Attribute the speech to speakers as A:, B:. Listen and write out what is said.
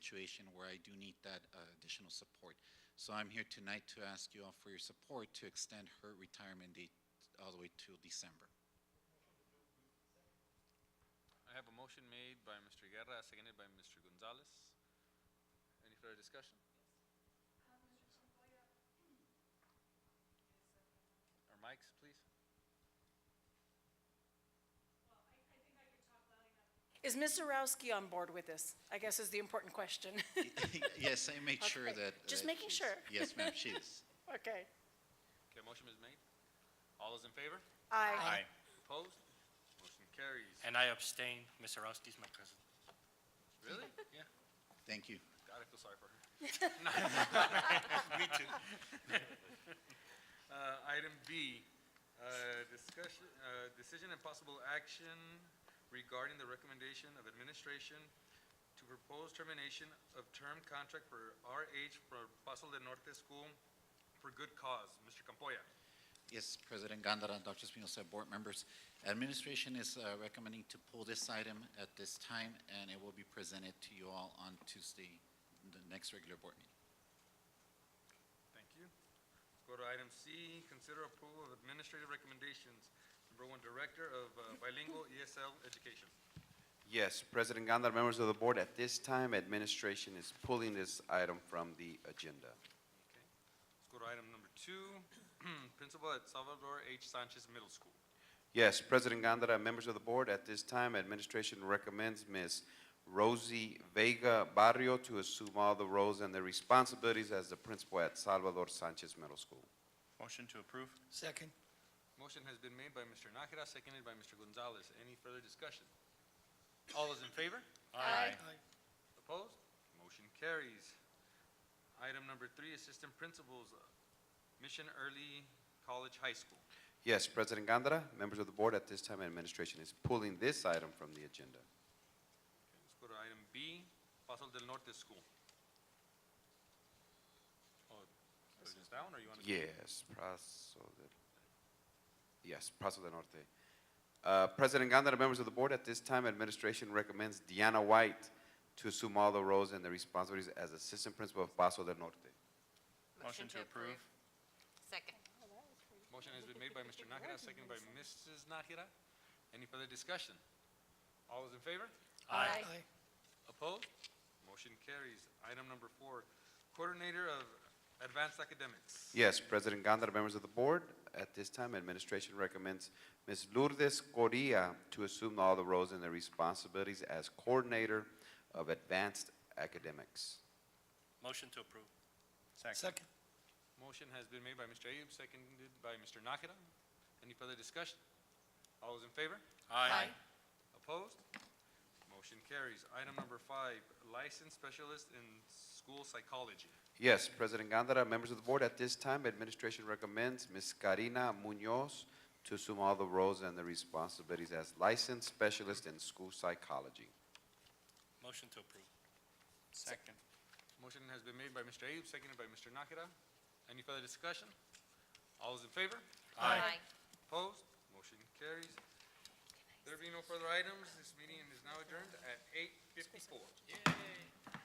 A: situation where I do need that uh, additional support. So I'm here tonight to ask you all for your support to extend her retirement date all the way to December.
B: I have a motion made by Mr. Guerra, seconded by Mr. Gonzalez. Any further discussion? Our mics, please.
C: Is Ms. Zarowski on board with this? I guess is the important question.
A: Yes, I made sure
C: Okay,
A: that. uh,
C: just making
A: she's-
C: sure.
A: Yes, ma'am, she is.
C: Okay.
B: Okay, motion is made. All those in favor?
C: Aye.
B: Opposed? Motion carries.
D: And I abstain. Ms. Orozki is my cousin.
B: Really? Yeah.
A: Thank you.
B: God, I feel sorry for her. Me too. Uh, item B, uh, discussion, uh, decision and possible action regarding the recommendation of administration to propose termination of term contract for RH for Paso del Norte School for good cause. Mr. Campoya.
A: Yes, President Gondara, Dr. Espinosa, board members. Administration is uh, recommending to pull this item at this time, and it will be presented to you all on Tuesday, the next regular board meeting.
B: Thank you. Let's go to item C, consider approval of administrative recommendations. Number one, Director of uh, Bilingual ESL Education.
E: Yes, President Gondar, members of the board, at this time, administration is pulling this item from the agenda.
B: Let's go to item number two, principal at Salvador H. Sanchez Middle School.
E: Yes, President Gondar, members of the board, at this time, administration recommends Ms. Rosie Vega Barrio to assume all the roles and the responsibilities as the principal at Salvador Sanchez Middle School.
F: Motion to approve?
D: Second.
B: Motion has been made by Mr. Nakira, seconded by Mr. Gonzalez. Any further discussion? All those in favor?
F: Aye.
B: Opposed? Motion carries. Item number three, assistant principals, uh, Mission Early College High School.
E: Yes, President Gondar, members of the board, at this time, administration is pulling this item from the agenda.
B: Let's go to item B, Paso del Norte School. Oh, put this down, or you want to?
E: Yes, Paso del, yes, Paso del Norte. Uh, President Gondar, members of the board, at this time, administration recommends Deanna White to assume all the roles and the responsibilities as assistant principal of Paso del Norte.
F: Motion to approve?
G: Second.
B: Motion has been made by Mr. Nakira, seconded by Mrs. Nakira. Any further discussion? All those in favor?
G: Aye.
B: Opposed? Motion carries. Item number four, Coordinator of Advanced Academics.
E: Yes, President Gondar, members of the board, at this time, administration recommends Ms. Lourdes Correa to assume all the roles and the responsibilities as coordinator of advanced academics.
D: Motion to approve.
F: Second.
B: Motion has been made by Mr. Ayub, seconded by Mr. Nakira. Any further discussion? All those in favor?
G: Aye.
B: Opposed? Motion carries. Item number five, Licensed Specialist in School Psychology.
E: Yes, President Gondara, members of the board, at this time, administration recommends Ms. Karina Munoz to assume all the roles and the responsibilities as licensed specialist in school psychology.
D: Motion to approve.
F: Second.
B: Motion has been made by Mr. Ayub, seconded by Mr. Nakira. Any further discussion? All those in favor?
G: Aye.
B: Opposed? Motion carries. There being no further items, this meeting is now adjourned at eight fifty-four.